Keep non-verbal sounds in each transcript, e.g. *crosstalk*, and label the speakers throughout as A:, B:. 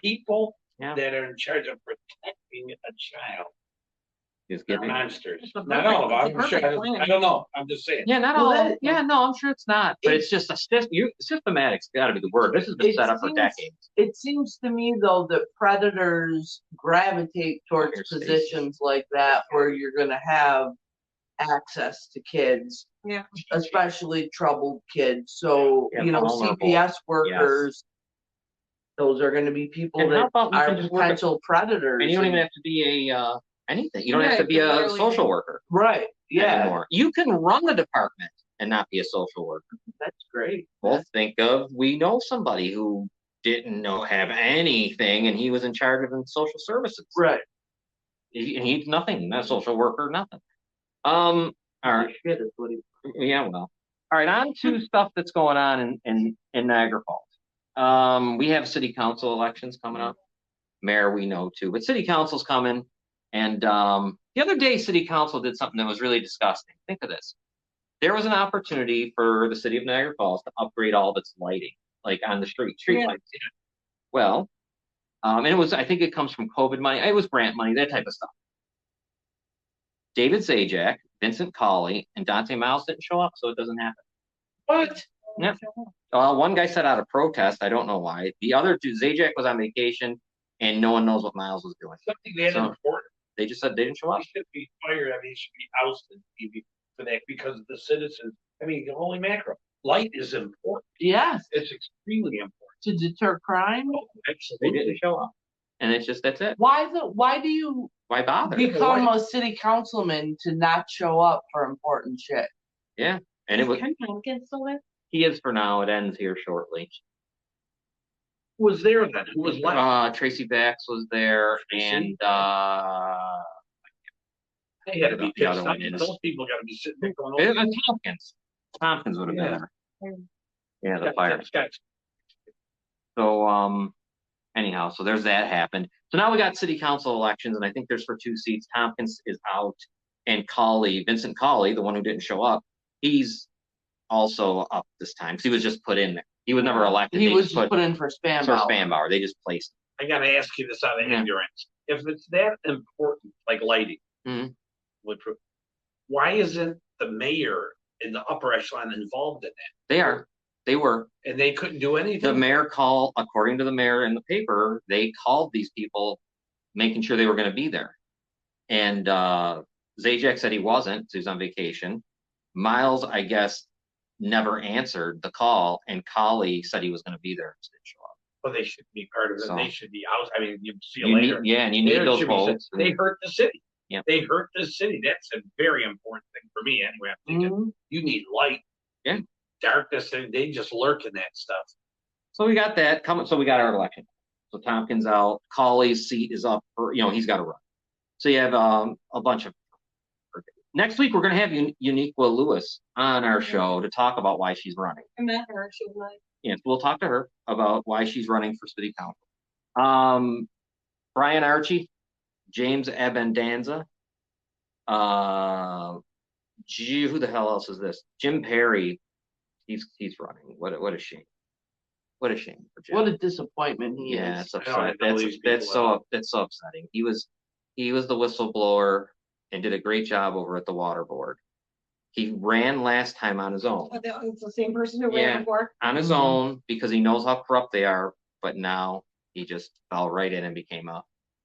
A: people
B: Yeah.
A: that are in charge of protecting a child.
C: Just
A: They're
C: get me.
A: monsters.
B: It's a
A: Not all of
B: perfect-
A: them. I'm
B: it's a
A: sure,
B: perfect plan.
A: I don't know. I'm just saying.
B: Yeah, not
D: Well,
B: all,
D: that-
B: yeah, no, I'm sure it's not, but it's just a sys- you, systematic's gotta be the word, this has been
D: It
B: set up for
D: seems-
B: decades.
D: It seems to me though that predators gravitate towards
B: Here's Stacy.
D: positions like that where you're gonna have access to kids.
E: Yeah.
D: Especially troubled kids, so,
B: Yeah,
D: you know,
B: vulnerable.
D: CPS workers. Those are gonna be people
B: And how
D: that
B: about we
D: are
B: can just work it-
D: potential predators.
B: And you don't even
D: and-
B: have to be a, uh, anything, you don't have
E: Yeah,
B: to
E: you
B: be
E: can
B: a
E: literally-
B: social worker
D: Right, yeah,
B: anymore, you can run the department and not be a social worker.
D: that's great.
B: Well, think of, we know somebody who didn't know, have anything, and he was in charge of in social services.
D: Right.
B: He- And he's nothing, not a social worker, nothing. Um, all right,
D: Shit is what he-
B: yeah, well, all right, on to stuff that's going on in, in, in Niagara Falls. Um, we have city council elections coming up. Mayor, we know too, but city council's coming. And, um, the other day, city council did something that was really disgusting. Think of this. There was an opportunity for the city of Niagara Falls to upgrade all of its lighting, like on the street, street
E: Yeah.
B: lights. Well, um, and it was, I think it comes from COVID money. It was grant money, that type of stuff. David Zajac, Vincent Colley, and Dante Miles didn't show up, so it doesn't happen.
A: What?
B: Yep. Uh, one guy set out a protest. I don't know why. The other two, Zajac was on vacation, and no one knows what Miles was doing.
A: Something that
B: So-
A: important.
B: They just said they didn't show up.
A: He should be fired. I mean, he should be ousted maybe for that because of the citizens. I mean, holy mackerel. Light is important.
D: Yes,
A: It's extremely important.
D: to deter crime,
A: Oh,
B: They
A: Absolutely.
B: didn't show up, and it's just that's it.
D: why the, why do you
B: Why bother?
D: become a city councilman to not show up for important shit.
B: And it was.
E: Ken Jenkins still there?
B: He is for now. It ends here shortly.
A: Who was there then? Who was left?
B: Uh, Tracy Bax was there,
A: Tracy?
B: and uh,
A: They had to be
B: The
A: pissed
B: other
A: off.
B: one is-
A: Those people gotta be sitting there going.
B: it
A: "Oh,
B: was Tompkins. Tompkins would have been
A: Yeah.
B: there. Yeah, the
A: Scott,
B: fire.
A: Scott, Scott.
B: So, um, anyhow, so there's that happened. So now we got city council elections and I think there's for two seats. Tompkins is out. And Colley, Vincent Colley, the one who didn't show up, he's also up this time. 'cause he was just put in there. He was never elected.
D: He
B: They
D: was
B: just
D: just put in for spam
B: for
D: ballot.
B: Spanbauer. They just placed.
A: I gotta ask you this out of
B: Yeah.
A: ignorance. If it's that important, like lighting.
B: Mhm.
A: Would, pro- why isn't the mayor in the upper echelon involved in that?
B: They are. They were.
A: And they couldn't do
B: The
A: anything?
B: mayor called, according to the mayor in the paper, they called these people, making sure they were gonna be there. And, uh, Zajac said he wasn't, 'cause he was on vacation. Miles, I guess, never answered the call, and Collie said he was gonna be there. just didn't show up.
A: Well, they shouldn't be part of it.
B: So-
A: They should be out. I mean, you see you
B: You need-
A: later.
B: Yeah, and you
A: They
B: need those
A: should be said-
B: votes.
A: They hurt the city.
B: Yep.
A: They hurt the city. That's a very important thing for me anyway. I'm thinking,
D: Mhm.
A: you need light.
B: Mm-hmm. Yeah.
A: Darkness, and they just lurk in that stuff.
B: So we got that coming, so we got our election. So Tompkins out, Colley's seat is up for, you know, he's gotta run. So you have, um, a bunch of. Next week, we're gonna have Un- Uniqua Lewis on our show to talk about why she's running.
E: I met her, she was like.
B: And we'll talk to her about why she's running for city council. Um, Brian Archie, James Abendanza. Uh, gee, who the hell else is this? Jim Perry. He's, he's running. What, a- what a shame. What a shame for Jim.
D: What a disappointment he
B: Yeah,
D: is.
B: it's
A: I don't
B: upsetting.
A: know
B: That's,
A: these
B: that's
A: people
B: so, that's so upsetting. He was, he was the whistleblower and did a great job over at the water board. He ran last time on his own,
E: Oh, that was the Mm-hmm. same person who
B: Yeah.
E: ran before.
B: on his
D: Mhm.
B: own, because he knows how corrupt they are, but now he just fell right in and became a part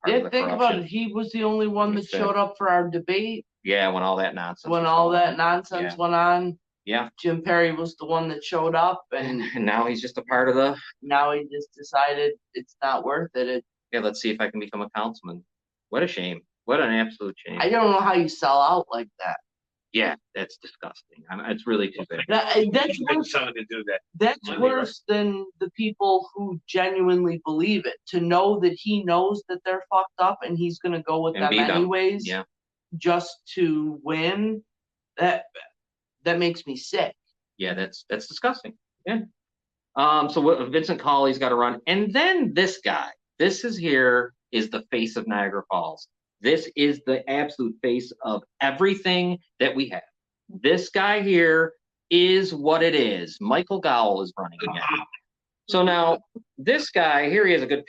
B: of
D: Yeah,
B: the
D: think about it.
B: corruption.
D: He was the only one that
B: Understand.
D: showed up for our debate
B: Yeah, when all that nonsense.
D: when
B: was
D: all
B: going
D: that
B: on.
D: nonsense
B: Yeah.
D: went on.
B: Yeah.
D: Jim Perry was the one that showed
B: *laughs*
D: up
B: And,
D: and
B: and now he's just a part of the,
D: now he just decided it's not worth it. it.
B: yeah, let's see if I can become a councilman. What a shame. What an absolute shame.
D: I don't know how you sell out like that.
B: Yeah, that's disgusting. I'm, it's really too bad.
D: That, that's
A: It's a good
D: worse,
A: son to do that.
D: that's
A: Monday, right.
D: worse than the people who genuinely believe it. To know that he knows that they're fucked up and he's gonna go with
B: And
D: them
B: beat 'em.
D: anyways.
B: Yeah.
D: just to win that that makes me sick
B: yeah, that's that's disgusting. Yeah. Um. So what, Vincent Colley's got to run, and then this guy. This is here is the face of Niagara Falls. This is the absolute face of everything that we have. This guy here is what it is. Michael Gowell is running again. So now this guy here, he has a good